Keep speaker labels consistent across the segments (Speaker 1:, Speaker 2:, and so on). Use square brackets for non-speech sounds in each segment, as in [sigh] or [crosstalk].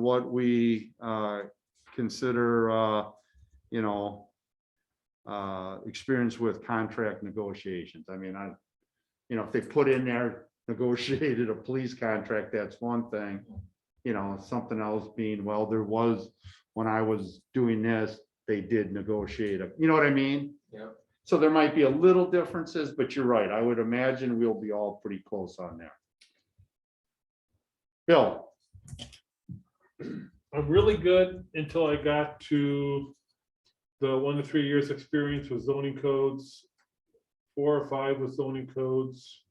Speaker 1: what we uh, consider, uh, you know, uh, experience with contract negotiations. I mean, I, you know, if they put in there [laughs] negotiated a police contract, that's one thing. You know, something else being, well, there was, when I was doing this, they did negotiate, a- you know what I mean?
Speaker 2: Yep.
Speaker 1: So there might be a little differences, but you're right. I would imagine we'll be all pretty close on there. Bill,
Speaker 3: I'm really good until I got to the one to three years experience with zoning codes. Four or five with zoning codes.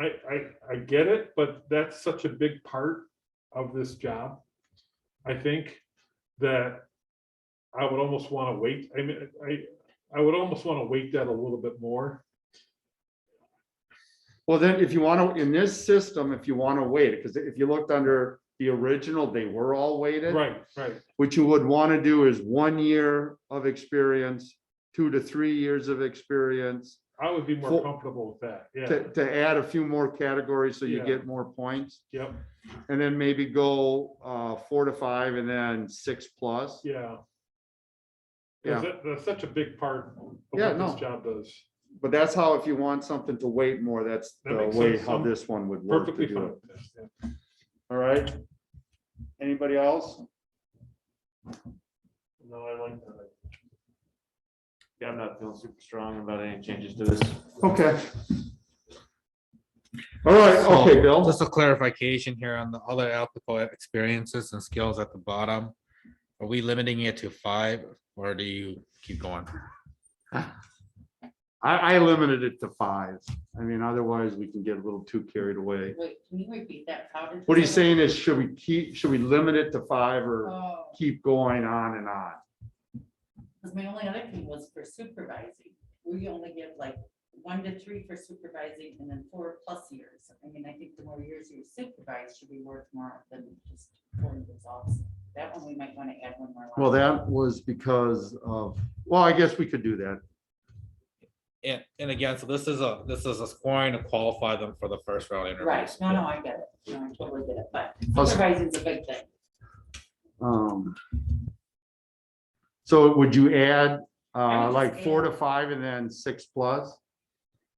Speaker 3: I, I, I get it, but that's such a big part of this job. I think that I would almost want to wait, I mean, I, I would almost want to wait that a little bit more.
Speaker 1: well then, if you want to, in this system, if you want to wait, because if you looked under the original, they were all weighted.
Speaker 3: Right, right,
Speaker 1: What you would want to do is one year of experience, two to three years of experience,
Speaker 3: I would be more
Speaker 1: Full-
Speaker 3: comfortable with that, yeah,
Speaker 1: to, to add a few more categories so you
Speaker 3: Yeah.
Speaker 1: get more points.
Speaker 3: yep,
Speaker 1: And then maybe go uh, four to five and then six plus.
Speaker 3: yeah.
Speaker 1: Yeah.
Speaker 3: Because that- That's such a big part of
Speaker 1: Yeah,
Speaker 3: what this
Speaker 1: no.
Speaker 3: job does.
Speaker 1: But that's how, if you want something to wait more, that's
Speaker 3: That
Speaker 1: the
Speaker 3: makes
Speaker 1: way
Speaker 3: sense.
Speaker 1: how
Speaker 3: I'm
Speaker 1: this one would work to
Speaker 3: Perfectly
Speaker 1: do
Speaker 3: fine.
Speaker 1: it. All right? Anybody else?
Speaker 3: No, I like that.
Speaker 2: Yeah, I'm not feeling super strong about any changes to this.
Speaker 1: Okay. All right, okay, Bill.
Speaker 4: Oh, Just a clarification here on the other applicable experiences and skills at the bottom. Are we limiting it to five or do you keep going?
Speaker 1: I, I limited it to five. I mean, otherwise we can get a little too carried away.
Speaker 5: Wait, can you repeat that? How did?
Speaker 1: What he's saying is, should we keep, should we limit it to five or
Speaker 5: Oh,
Speaker 1: keep going on and on?
Speaker 5: because my only other thing was for supervising. We only give like one to three for supervising and then four plus years. I mean, I think the more years you supervise should be worth more than just four years off. That one, we might want to add one more. line.
Speaker 1: Well, that was because of, well, I guess we could do that.
Speaker 4: And, and again, so this is a, this is a scoring to qualify them for the first round
Speaker 5: Right,
Speaker 4: interviews.
Speaker 5: no, no, I get it. No, I totally get it, but
Speaker 1: Us-
Speaker 5: supervising is a big thing.
Speaker 1: um, So would you add
Speaker 5: I
Speaker 1: uh,
Speaker 5: would
Speaker 1: like
Speaker 5: just
Speaker 1: four
Speaker 5: add-
Speaker 1: to five and then six plus?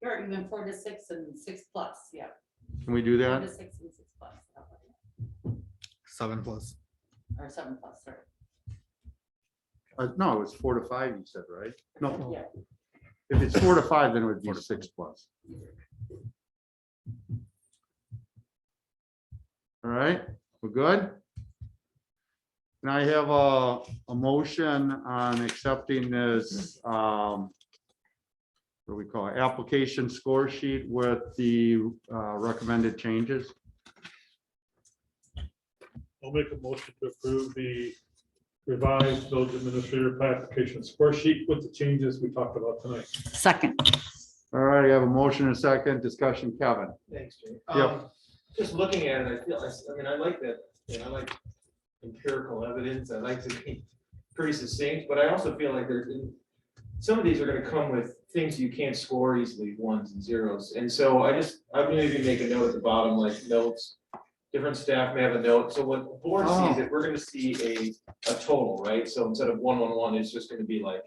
Speaker 5: Or even four to six and six plus, yeah.
Speaker 1: Can we do
Speaker 5: Four to
Speaker 1: that?
Speaker 5: six and six plus,
Speaker 4: Seven plus.
Speaker 5: or seven plus, sorry.
Speaker 1: Uh, No, it's four to five, you said, right? No,
Speaker 5: Yeah.
Speaker 1: if it's four to five, then it would be six plus. All right, we're good? Can I have a, a motion on accepting this, um, what do we call it, application score sheet with the uh, recommended changes?
Speaker 3: I'll make a motion to approve the revised village administrator classification score sheet with the changes we talked about tonight.
Speaker 5: Second.
Speaker 1: All right, I have a motion and a second, discussion, Kevin.
Speaker 2: Thanks, Jay.
Speaker 1: Yep.
Speaker 2: Um, Just looking at it, I feel, I s- I mean, I like that, you know, I like empirical evidence, I like to be pretty succinct, but I also feel like there's, some of these are gonna come with things you can't score easily, ones and zeros, and so I just, I'm gonna maybe make a note at the bottom, like notes. Different staff may have a note, so what the board
Speaker 1: Oh.
Speaker 2: sees it, we're gonna see a, a total, right? So instead of one, one, one, it's just gonna be like,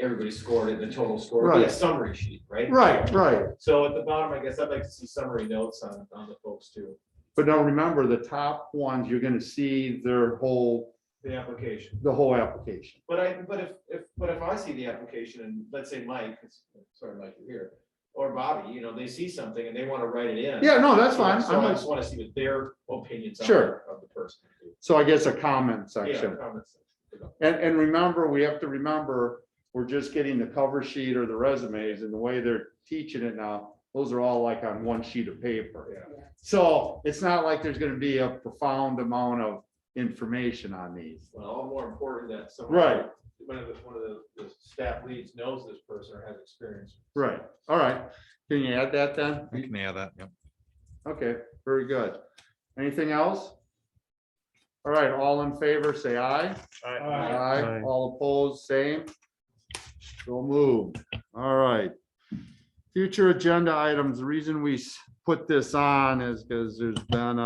Speaker 2: everybody scored it, the total score, it'll be a
Speaker 1: Right.
Speaker 2: summary sheet, right?
Speaker 1: Right, right.
Speaker 2: So at the bottom, I guess I'd like to see summary notes on, on the folks too,
Speaker 1: But now remember, the top ones, you're gonna see their whole,
Speaker 2: the application.
Speaker 1: the whole application.
Speaker 2: But I, but if, if, but if I see the application and let's say Mike, 'cause- sorry, Mike, you're here, or Bobby, you know, they see something and they want to write it in.
Speaker 1: Yeah, no, that's fine.
Speaker 2: So
Speaker 1: I'm
Speaker 2: I
Speaker 1: not,
Speaker 2: just want to see what their opinions are
Speaker 1: Sure.
Speaker 2: of the person.
Speaker 1: so I guess a comment
Speaker 2: Yeah,
Speaker 1: section.
Speaker 2: comments.
Speaker 1: And, and remember, we have to remember, we're just getting the cover sheet or the resumes and the way they're teaching it now, those are all like on one sheet of paper. So it's not like there's gonna be a profound amount of information on these.
Speaker 2: Well, all more important that someone.
Speaker 1: Right.
Speaker 2: One of the, one of the, the staff leads knows this person or has experience.
Speaker 1: Right, all right. Can you add that then?
Speaker 4: I can add that, yep.
Speaker 1: Okay, very good. Anything else? All right, all in favor, say aye.
Speaker 3: Uh,
Speaker 1: Aye, all opposed, same. So move. All right. Future agenda items, the reason we s- put this on is because there's been